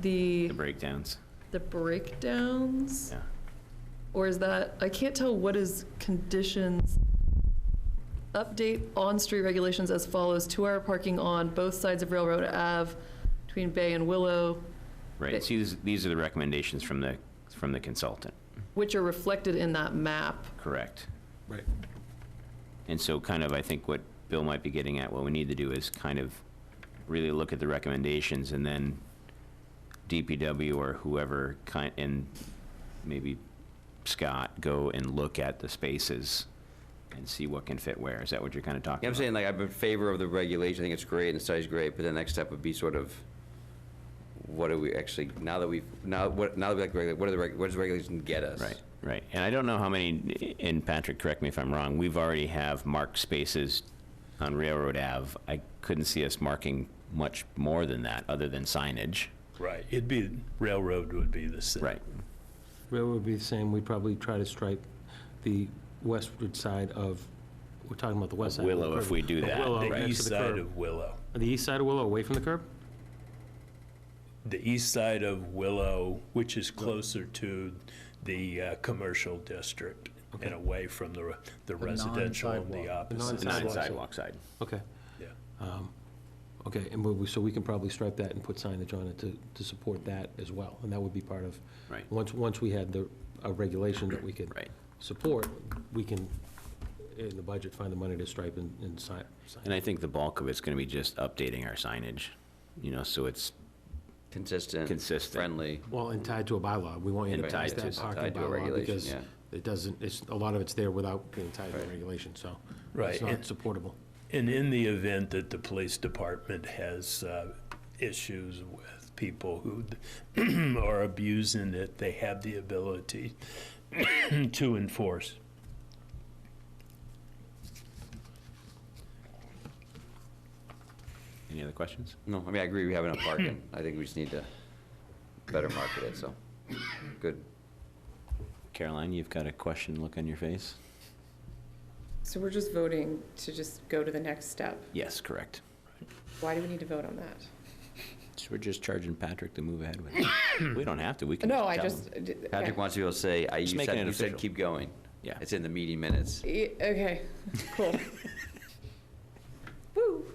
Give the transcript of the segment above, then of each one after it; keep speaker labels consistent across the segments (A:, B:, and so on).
A: the,
B: the breakdowns.
A: the breakdowns?
B: Yeah.
A: Or is that, I can't tell what is conditions. Update on-street regulations as follows, two-hour parking on both sides of Railroad Ave between Bay and Willow,
B: Right, so these, these are the recommendations from the, from the consultant,
A: which are reflected in that map.
B: correct?
C: Right.
B: And so kind of, I think what Bill might be getting at, what we need to do is kind of really look at the recommendations and then DPW or whoever kind, and maybe Scott, go and look at the spaces and see what can fit where. Is that what you're kind of talking
D: Yeah, I'm
B: about?
D: saying, like, I'm in favor of the regulation, I think it's great, and the study's great, but the next step would be sort of, what are we actually, now that we've, now, what, now that we like, regulate, what are the, reg- what does regulation get us?
B: Right, right. And I don't know how many, and Patrick, correct me if I'm wrong, we've already have marked spaces on Railroad Ave. I couldn't see us marking much more than that, other than signage.
E: Right, it'd be, railroad would be the same.
C: Railroad would be the same, we'd probably try to stripe the westward side of, we're talking about the west side. of the
B: Willow, if
C: curb.
B: we do that,
C: Willow,
B: right.
C: next
E: The
C: to
E: east
C: the
E: side
C: curb.
E: of Willow.
C: The east side of Willow, away from the curb?
E: The east side of Willow, which is closer to the uh, commercial district and away from the re- the residential on the
C: non-sidewalk. The
E: opposite.
B: Not
C: Sidewalk side.
B: sidewalk side.
C: Okay,
E: Yeah.
C: okay, and we- so we can probably stripe that and put signage on it to, to support that as well, and that would be part of.
B: Right.
C: Once, once we had the, a regulation that we could.
B: Right.
C: Support, we can, in the budget, find the money to stripe and, and sign.
B: And I think the bulk of it's going to be just updating our signage, you know, so it's
D: Consistent.
B: Consistent.
D: Friendly.
C: Well, and tied to a bylaw, we want you to
B: And
C: pass
B: tied
C: that
B: to-
C: parking
D: tied to a
C: bylaw,
D: regulation,
C: because
D: yeah.
C: it doesn't, it's, a lot of it's there without being tied to a
D: Right.
C: regulation, so.
E: Right,
C: It's
E: and-
C: not supportable.
E: And in the event that the police department has uh, issues with people who are abusing it, they have the ability to enforce.
B: Any other questions?
D: No, I mean, I agree, we have enough parking, I think we just need to better market it, so, good.
B: Caroline, you've got a question look on your face?
F: So we're just voting to just go to the next step.
B: Yes, correct.
F: Why do we need to vote on that?
B: So we're just charging Patrick to move ahead with it. We don't have to, we can
F: No, I
B: tell
F: just,
B: him.
D: Patrick wants to be able to say, I, you
B: Just making
D: said,
B: it
D: you said
B: official.
D: keep going.
B: Yeah.
D: It's in the meeting minutes.
F: E- okay, cool. Woo.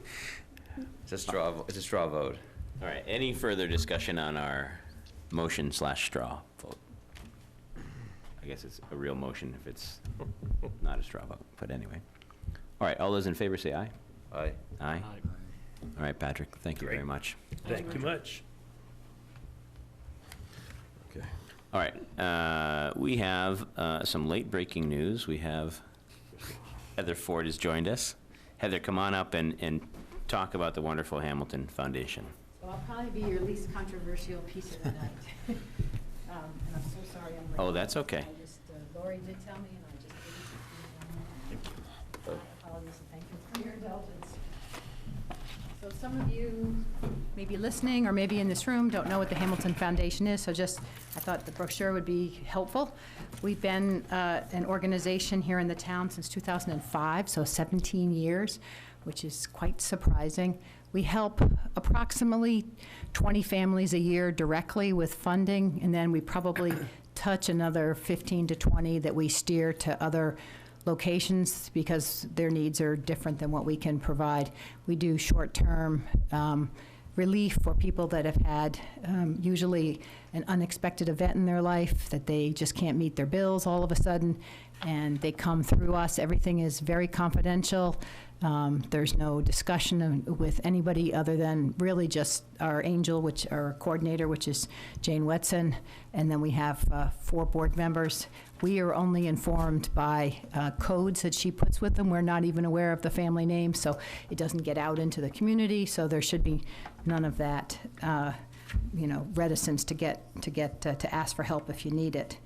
D: It's a straw, vo- it's a straw vote.
B: All right, any further discussion on our motion slash straw vote? I guess it's a real motion if it's not a straw vote, but anyway. All right, all those in favor say aye.
D: Aye.
B: Aye. All right, Patrick, thank you very
E: Great.
B: much.
E: Thank you much.
C: Okay.
B: All right, uh, we have uh, some late-breaking news. We have Heather Ford has joined us. Heather, come on up and, and talk about the wonderful Hamilton Foundation.
G: So I'll probably be your least controversial piece of the night. Um, And I'm so sorry I'm late.
B: Oh, that's okay.
G: I just, uh, Lori did tell me, and I just didn't. Thank you. I apologize, and thank you for your indulgence. So some of you may be listening, or maybe in this room, don't know what the Hamilton Foundation is, so just, I thought the brochure would be helpful. We've been uh, an organization here in the town since 2005, so 17 years, which is quite surprising. We help approximately 20 families a year directly with funding, and then we probably touch another 15 to 20 that we steer to other locations because their needs are different than what we can provide. We do short-term um, relief for people that have had um, usually an unexpected event in their life, that they just can't meet their bills all of a sudden, and they come through us. Everything is very confidential. Um, There's no discussion of- with anybody other than really just our angel, which, our coordinator, which is Jane Wetson, and then we have uh, four board members. We are only informed by uh, codes that she puts with them. We're not even aware of the family name, so it doesn't get out into the community, so there should be none of that, uh, you know, reticence to get, to get, uh, to ask for help if you need it.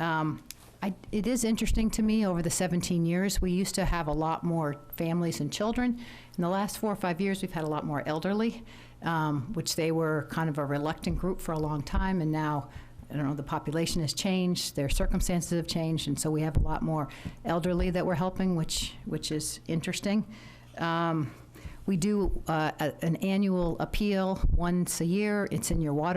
G: Um, I, it is interesting to me over the 17 years, we used to have a lot more families and children. In the last four or five years, we've had a lot more elderly, um, which they were kind of a reluctant group for a long time, and now, I don't know, the population has changed, their circumstances have changed, and so we have a lot more elderly that we're helping, which, which is interesting. Um, we do uh, a- an annual appeal once a year. It's in your water.